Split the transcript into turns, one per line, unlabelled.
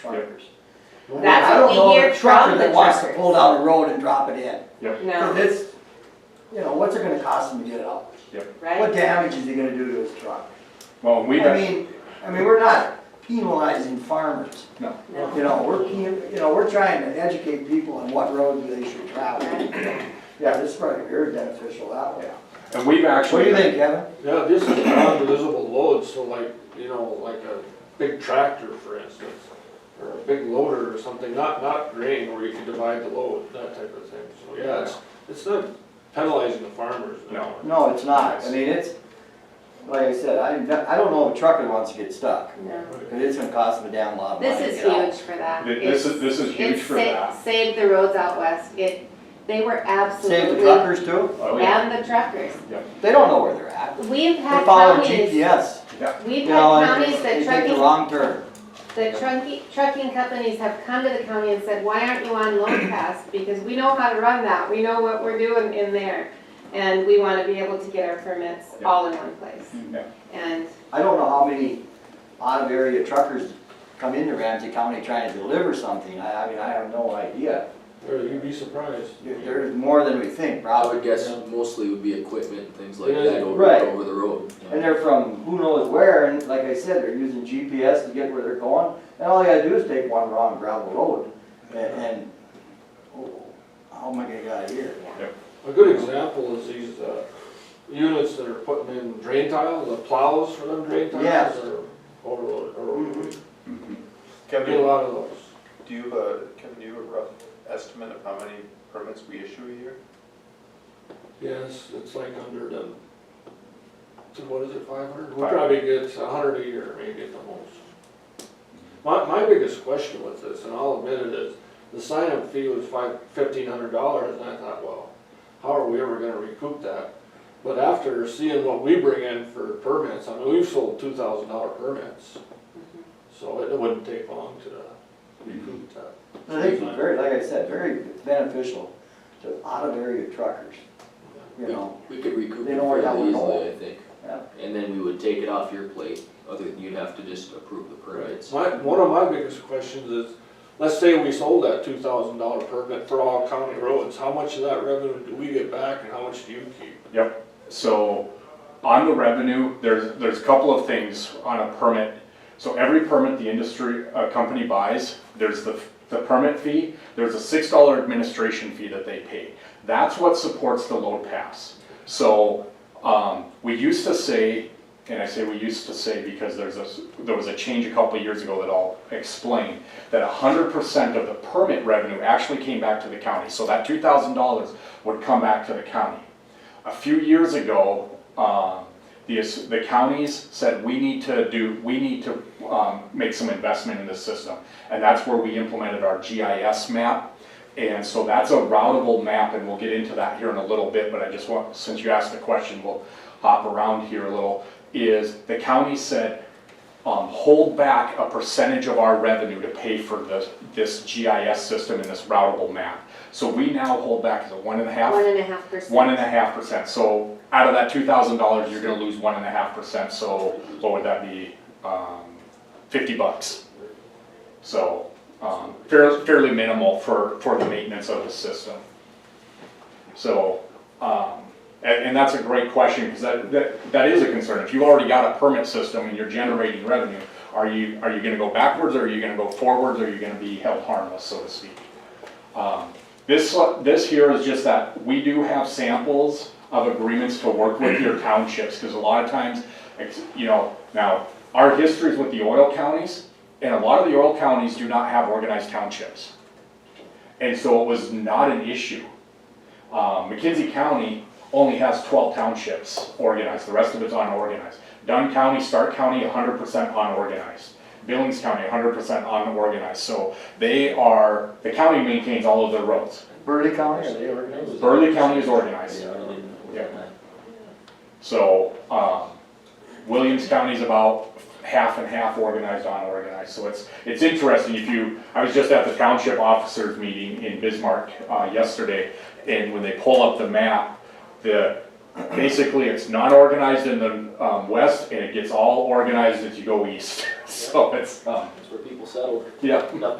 truckers.
Well,
That's what
I don't
we
know of
hear
a trucker
from
that
the
wants to
truckers.
Pull down a road and drop it in.
No,
It's, you know, what's it gonna cost him to get it out? What
right?
damage is he gonna do to his truck?
Well, we,
I
got-
mean, I mean, we're not penalizing farmers.
No.
You know, we're, pe- you know, we're trying to educate people on what road they should travel. Yeah, this is probably very beneficial that way.
and
What
we've
do
actually,
you think, Kevin?
Yeah, this is non-divisible loads, so like, you know, like a big tractor, for instance, or a big loader or something, not, not grain where you can divide the load, that type of thing. So, yeah, it's, it's not penalizing the farmers.
No.
No, it's not. I mean, it's, like I said, I, I don't know if a trucker wants to get stuck,
No.
because it's gonna cost him a damn lot of money.
This
to
is
get out.
huge for that.
Th- this is- this is
It's-
huge
it's
for
sa-
that.
Saved the roads out west, it, they were
Save the
absolutely,
truckers too?
oh, yeah,
and the truckers.
They don't know where they're at.
We've
They're
had
following
counties,
GPS.
we've
You
had
know, and they
counties that
take the
trucking,
wrong turn.
that trucking, trucking companies have come to the county and said, why aren't you on load pass? Because we know how to run that, we know what we're doing in there, and we wanna be able to get our permits
Yeah.
all in one place.
Yeah.
And
I don't know how many out of area truckers come into Ramsey County trying to deliver something. I, I mean, I have no idea.
Or you'd be surprised.
There- There's more than we think,
I
probably.
would guess mostly would be equipment and things like
Yeah,
that over,
right.
over the road.
And they're from who knows where, and like I said, they're using GPS to get where they're going, and all they gotta do is take one wrong gravel road, and, and, oh, how am I gonna get out of here?
A good example is these, uh, units that are putting in drain tiles, the plows for them drain
Yes.
tiles or overload, or,
Mhm.
get a
Kevin,
lot of those.
do you have a, Kevin, do you have a rough estimate of how many permits we issue a year?
Yes, it's like under the, so what is it, five hundred? We probably get a hundred a year, maybe at the most. My, my biggest question with this, and I'll admit it, is the sign-up fee was five, fifteen hundred dollars, and I thought, well, how are we ever gonna recoup that? But after seeing what we bring in for permits, I mean, we've sold two thousand dollar permits. So it wouldn't take long to recoup that.
I think it's very, like I said, very beneficial to out of area truckers, you know,
We could recoup
They
it
don't work out
fairly
with all.
easily, I think.
Yeah.
And then we would take it off your plate, other, you'd have to just approve the permits.
My, one of my biggest questions is, let's say we sold that two thousand dollar permit for all county roads, how much of that revenue do we get back and how much do you keep?
So on the revenue, there's, there's a couple of things on a permit. So every permit the industry, a company buys, there's the, the permit fee, there's a six dollar administration fee that they pay. That's what supports the load pass. So, um, we used to say, and I say we used to say because there's a, s- there was a change a couple of years ago that I'll explain, that hundred percent of the permit revenue actually came back to the county. So that two thousand dollars would come back to the county. A few years ago, um, the, the counties said, we need to do, we need to um, make some investment in this system. And that's where we implemented our GIS map. And so that's a routable map, and we'll get into that here in a little bit, but I just want, since you asked the question, we'll hop around here a little, is the county said, um, hold back a percentage of our revenue to pay for this, this GIS system and this routable map. So we now hold back, is it one and a half?
one and a half percent.
One and a half percent, so out of that two thousand dollars, you're gonna lose one and a half percent, so what would that be? Um, Fifty bucks. So, um, fairly, fairly minimal for, for the maintenance of the system. So, um, and, and that's a great question, because that, that, that is a concern. If you've already got a permit system and you're generating revenue, are you, are you gonna go backwards, or are you gonna go forwards, or are you gonna be held harmless, so to speak? Um, This, this here is just that, we do have samples of agreements to work with your townships, because a lot of times, ex- you know, now, our history is with the oil counties, and a lot of the oil counties do not have organized townships. And so it was not an issue. Um, McKinsey County only has twelve townships organized, the rest of it's unorganized. Dunn County, Stark County, hundred percent unorganized. Billings County, hundred percent unorganized, so they are, the county maintains all of their roads.
Burley County, are they organized?
Burley County is organized. Yeah. So, um, Williams County's about half and half organized, unorganized, so it's, it's interesting if you, I was just at the township officers meeting in Bismarck, uh, yesterday, and when they pull up the map, the, basically it's not organized in the, um, west, and it gets all organized as you go east, so it's, um,
That's where people settle.
yeah.
Nothing